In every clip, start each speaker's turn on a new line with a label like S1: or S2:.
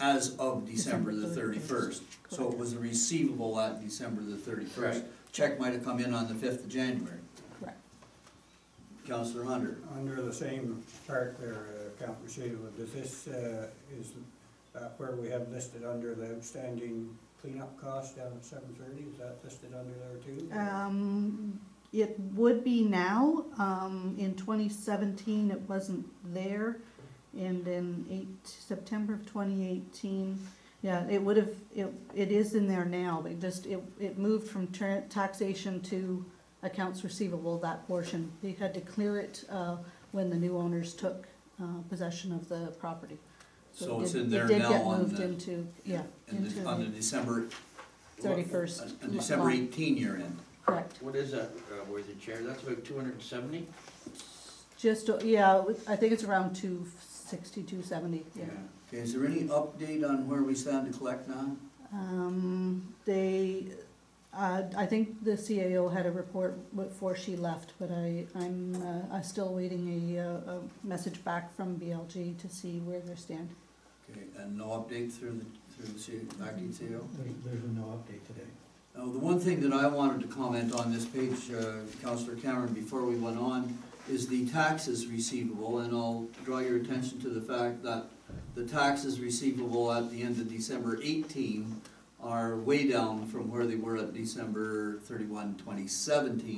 S1: as of December the thirty-first. So it was a receivable at December the thirty-first. Check might have come in on the fifth of January.
S2: Correct.
S1: Counselor Hunter,
S3: Under the same chart there, uh, Count Rashida, does this, uh, is that where we have listed under the outstanding cleanup cost down at seven thirty, is that listed under there too?
S2: Um, it would be now, um, in twenty seventeen, it wasn't there, and in eight, September of twenty eighteen, yeah, it would have, it, it is in there now, they just, it, it moved from tra- taxation to accounts receivable, that portion. They had to clear it, uh, when the new owners took, uh, possession of the property.
S1: so
S2: it
S1: it's
S2: did-
S1: in there
S2: It did
S1: now
S2: get
S1: on
S2: moved
S1: the,
S2: into, yeah,
S1: in the-
S2: into,
S1: on the
S2: the-
S1: December. what-
S2: 31st
S1: On uh, December
S2: line.
S1: eighteen year end.
S2: correct.
S4: What is that, uh, worthy chair? That's about two hundred and seventy?
S2: Just, uh, yeah, I think it's around two sixty, two seventy, yeah.
S1: Okay, is there any update on where we stand to collect now?
S2: Um, they, uh, I think the CAO had a report before she left, but I, I'm, uh, I'm still waiting a, uh, a message back from BLG to see where they stand.
S1: Okay, and no update through the, through the C- acting CEO?
S5: There's, there's no update today.
S1: Uh, the one thing that I wanted to comment on this page, uh, Counselor Cameron, before we went on, is the taxes receivable, and I'll draw your attention to the fact that the taxes receivable at the end of December eighteen are way down from where they were at December 31, 2017,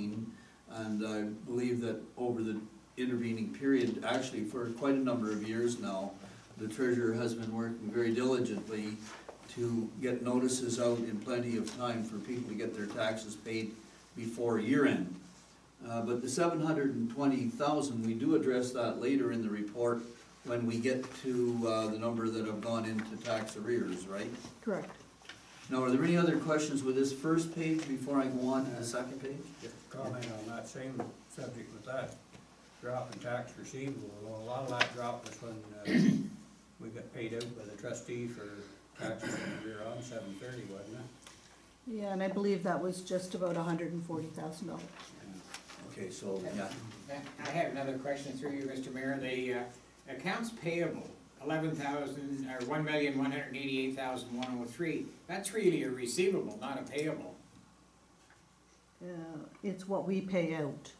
S1: And I believe that over the intervening period, actually for quite a number of years now, the treasurer has been working very diligently to get notices out in plenty of time for people to get their taxes paid before year end. Uh, but the seven hundred and twenty thousand, we do address that later in the report when we get to, uh, the number that have gone into tax arrears, right?
S2: Correct.
S1: Now, are there any other questions with this first page before I go on to the second page?
S3: Just a comment on that same subject with that drop in tax receivable, Well, a lot of that drop was when, uh, we got paid out by the trustee for taxes that we were on seven thirty, wasn't it?
S2: Yeah, and I believe that was just about hundred and forty thousand dollars.
S1: Okay, so, yeah,
S6: I have another question through you, Mr. Mayor. The uh, accounts payable, eleven thousand, or one million, one hundred eighty-eight thousand, one oh three, that's really a receivable, not a payable.
S2: Uh, it's what we pay out,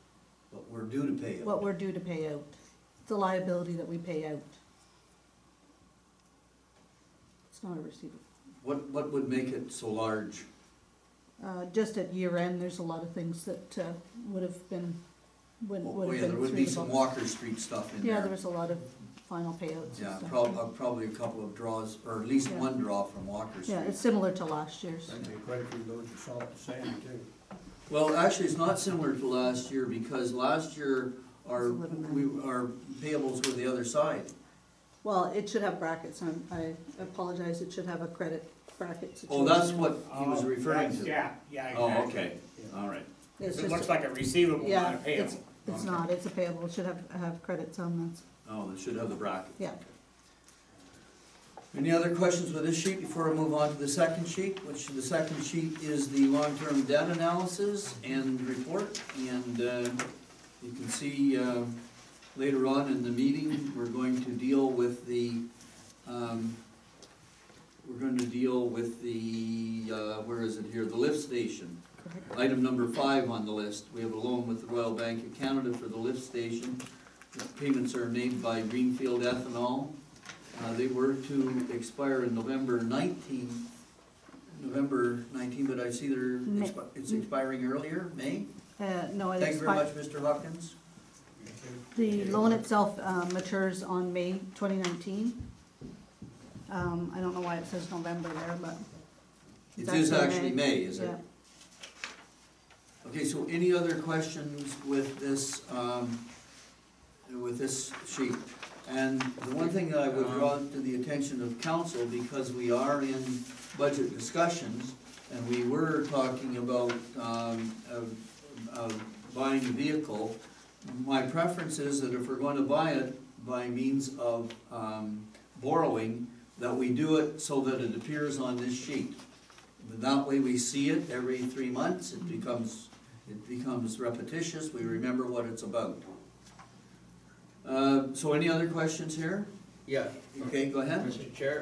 S1: but we're due to pay it.
S2: what we're due to pay out, the liability that we pay out. It's not a receivable.
S1: What, what would make it so large?
S2: Uh, just at year end, there's a lot of things that, uh, would have been, would,
S1: Well,
S2: would have
S1: Oh, yeah,
S2: been
S1: there
S2: through
S1: would be
S2: the
S1: some
S2: books.
S1: Walker Street stuff in there.
S2: Yeah, there was a lot of final payouts and
S1: Yeah,
S2: stuff.
S1: prob- uh, probably a couple of draws, or at least
S2: Yeah.
S1: one draw from Walker
S2: Yeah,
S1: Street.
S2: it's similar to last year's.
S3: That'd be quite a few loads of salt and sand too.
S1: Well, actually, it's not similar to last year, because last year, our,
S2: It's 11
S1: we, our payables were the other side.
S2: Well, it should have brackets, I'm, I apologize, it should have a credit bracket
S1: Oh,
S2: situation.
S1: that's what he was
S6: Oh,
S1: referring
S6: that's-
S1: to.
S6: Yeah, yeah,
S1: Oh,
S6: exactly.
S1: okay, all right.
S2: It's
S6: It looks
S2: just,
S6: like a receivable, not
S2: yeah,
S6: a
S2: it's,
S6: payable.
S2: it's not, it's a payable, it should have, have credits on that,
S1: Oh, they should have the bracket.
S2: yeah.
S1: Any other questions with this sheet before I move on to the second sheet, which the second sheet is the long-term debt analysis and report. And uh, you can see uh, later on in the meeting, we're going to deal with the, um, we're going to deal with the, uh, where is it here, the lift station.
S2: Correct.
S1: Item number five on the list, we have a loan with the Royal Bank of Canada for the lift station. The Payments are made by Greenfield Ethanol. Uh, they were to expire in November nineteenth, November nineteenth, but I see they're,
S2: May.
S1: expi- it's expiring earlier, May?
S2: Uh, no, it
S1: Thank you very much,
S2: expired,
S1: Mr. Hopkins.
S2: the loan itself, uh, matures on May twenty nineteen. Um, I don't know why it says November there, but.
S1: It
S2: it's
S1: is actually May, is it?
S2: Yeah.
S1: Okay, so any other questions with this, um, with this sheet? And the one thing that I would draw to the attention of council, because we are in budget discussions, and we were talking about, um, of, of buying a vehicle, my preference is that if we're going to buy it by means of, um, borrowing, that we do it so that it appears on this sheet. That way we see it every three months, it becomes, it becomes repetitious, we remember what it's about. Uh, so any other questions here?
S4: Yeah.
S1: Okay, go ahead.
S4: Mr. Chair,